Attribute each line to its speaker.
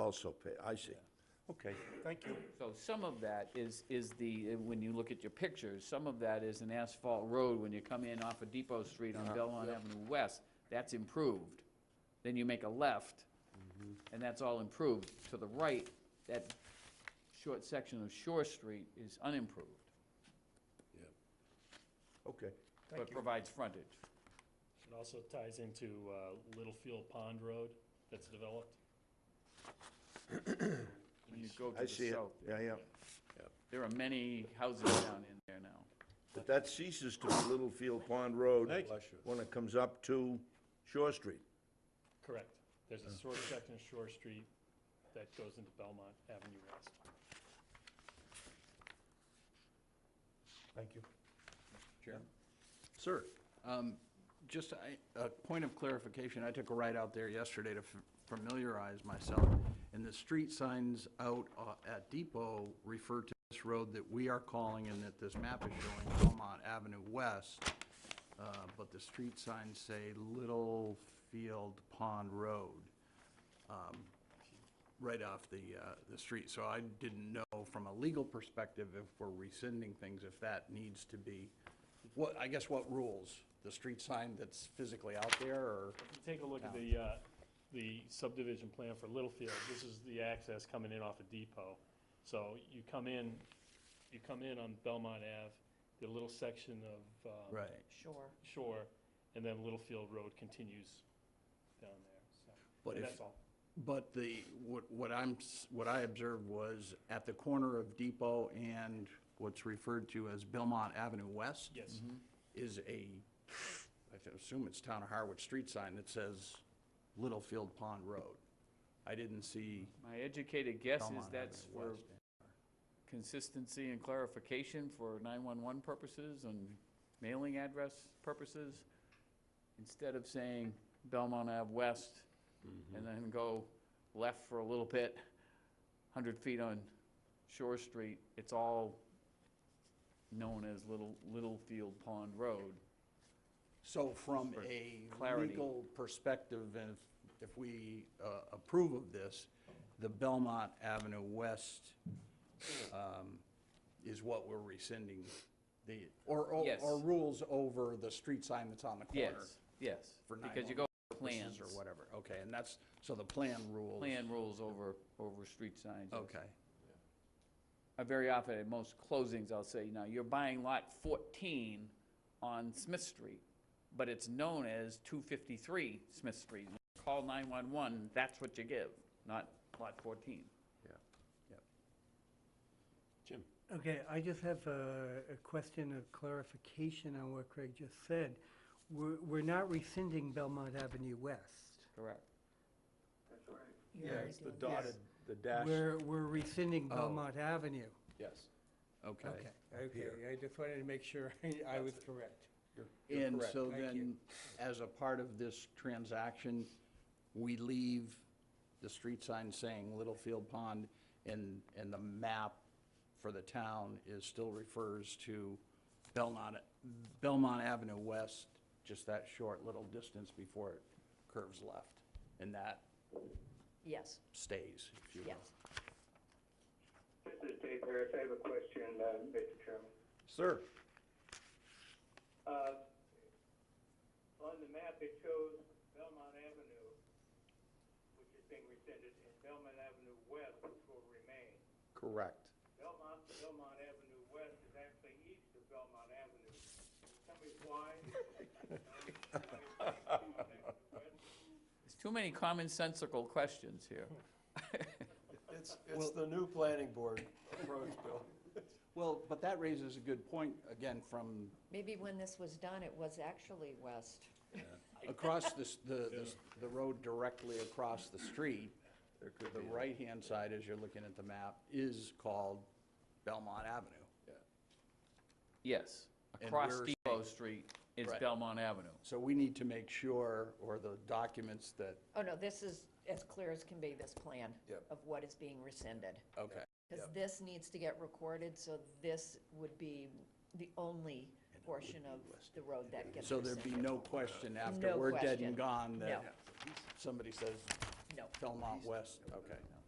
Speaker 1: also pay, I see. Okay, thank you.
Speaker 2: So some of that is, is the, when you look at your pictures, some of that is an asphalt road when you come in off of Depot Street on Belmont Avenue West, that's improved. Then you make a left,
Speaker 3: Mm-hmm.
Speaker 2: and that's all improved. To the right, that short section of Shore Street is unimproved,
Speaker 1: Okay,
Speaker 2: but provides frontage.
Speaker 4: It also ties into uh, Littlefield Pond Road that's developed.
Speaker 2: When you go to
Speaker 1: I
Speaker 2: the
Speaker 1: see it.
Speaker 2: south,
Speaker 1: Yeah, yeah.
Speaker 2: there are many houses down in there now.
Speaker 1: But that ceases to be Littlefield Pond Road.
Speaker 5: Thank you. Bless you.
Speaker 1: When it comes up to Shore Street.
Speaker 4: Correct. There's
Speaker 3: Oh.
Speaker 4: a short section of Shore Street that goes into Belmont Avenue West.
Speaker 1: Thank you.
Speaker 5: Sir,
Speaker 3: Um, Just I- a point of clarification, I took a ride out there yesterday to f- familiarize myself, and the street signs out uh, at Depot refer to this road that we are calling and that this map is showing Belmont Avenue West, uh, but the street signs say Littlefield Pond Road, um, right off the, uh, the street. So I didn't know from a legal perspective if we're rescinding things, if that needs to be what, I guess what rules? The street sign that's physically out there, or,
Speaker 4: If you take a look at the, uh, the subdivision plan for Littlefield, this is the access coming in off of Depot. So you come in, you come in on Belmont Ave, the little section of um,
Speaker 3: right?
Speaker 6: Sure.
Speaker 4: Shore, and then Littlefield Road continues down there, so.
Speaker 3: But
Speaker 4: and
Speaker 3: if-
Speaker 4: That's all.
Speaker 3: But the, what, what I'm, s- what I observed was at the corner of Depot and what's referred to as Belmont Avenue West.
Speaker 4: Yes.
Speaker 3: Is a, I th- assume it's Town of Harwich street sign that says Littlefield Pond Road. I didn't see
Speaker 2: My educated guess is
Speaker 3: Belmont
Speaker 2: that's
Speaker 3: Avenue
Speaker 2: for
Speaker 3: West.
Speaker 2: consistency and clarification for 911 purposes and mailing address purposes, instead of saying Belmont Ave West
Speaker 3: Mm-hmm.
Speaker 2: and then go left for a little bit, 100 feet on Shore Street, it's all known as Little, Littlefield Pond Road.
Speaker 3: So from
Speaker 2: For
Speaker 3: a
Speaker 2: clarity.
Speaker 3: legal perspective, and if, if we uh, approve of this, the Belmont Avenue West um, is what we're rescinding the, or, or
Speaker 2: Yes.
Speaker 3: or rules over the street sign that's on the corner.
Speaker 2: Yes, yes,
Speaker 3: For
Speaker 2: because you go
Speaker 3: versus
Speaker 2: plans,
Speaker 3: Or whatever, okay, and that's, so the plan rules.
Speaker 2: plan rules over, over street signs. yes.
Speaker 3: Okay,
Speaker 2: I very often at most closings, I'll say, now, you're buying lot 14 on Smith Street, but it's known as 253 Smith Street. Call 911, that's what you give, not lot 14.
Speaker 5: Jim,
Speaker 7: Okay, I just have a, a question of clarification on what Craig just said. We're, we're not rescinding Belmont Avenue West.
Speaker 2: Correct.
Speaker 6: You're already doing that.
Speaker 5: the
Speaker 7: We're, we're rescinding
Speaker 3: Oh.
Speaker 7: Belmont Avenue.
Speaker 5: yes.
Speaker 3: okay.
Speaker 7: okay, I just wanted to make sure I was correct.
Speaker 3: And
Speaker 5: correct.
Speaker 3: so
Speaker 7: Thank
Speaker 3: then, as a part of this transaction, we leave the street sign saying Littlefield Pond, and, and the map for the town is, still refers to Belmont, Belmont Avenue West, just that short little distance before it curves left. And that
Speaker 6: Yes,
Speaker 3: stays, if you will.
Speaker 6: yes.
Speaker 8: This is Dave Harris. I have a question, uh, Mr. Chairman.
Speaker 5: Sir,
Speaker 8: Uh, On the map, it shows Belmont Avenue, which is being rescinded, and Belmont Avenue West, which will remain.
Speaker 5: correct.
Speaker 8: Belmont, Belmont Avenue West is actually east of Belmont Avenue. Tell me why.
Speaker 2: There's too many commonsensical questions here.
Speaker 5: It's, it's the new planning board approach, Bill.
Speaker 3: Well, but that raises a good point, again, from
Speaker 6: Maybe when this was done, it was actually west.
Speaker 3: across this, the, this- the road directly across the street, the right-hand side, as you're looking at the map, is called Belmont Avenue.
Speaker 2: Yes,
Speaker 3: And
Speaker 2: across
Speaker 3: we're
Speaker 2: Depot Street is
Speaker 3: Right.
Speaker 2: Belmont Avenue.
Speaker 3: So we need to make sure, or the documents that,
Speaker 6: Oh, no, this is as clear as can be, this plan
Speaker 5: Yep.
Speaker 6: of what is being rescinded.
Speaker 3: okay,
Speaker 6: Because this needs to get recorded, so this would be the only portion of the road that gets
Speaker 3: so there'd
Speaker 6: rescinded.
Speaker 3: be no question after
Speaker 6: No
Speaker 3: we're dead and
Speaker 6: question.
Speaker 3: gone
Speaker 6: No,
Speaker 3: that somebody says
Speaker 6: no.
Speaker 3: Belmont West, okay.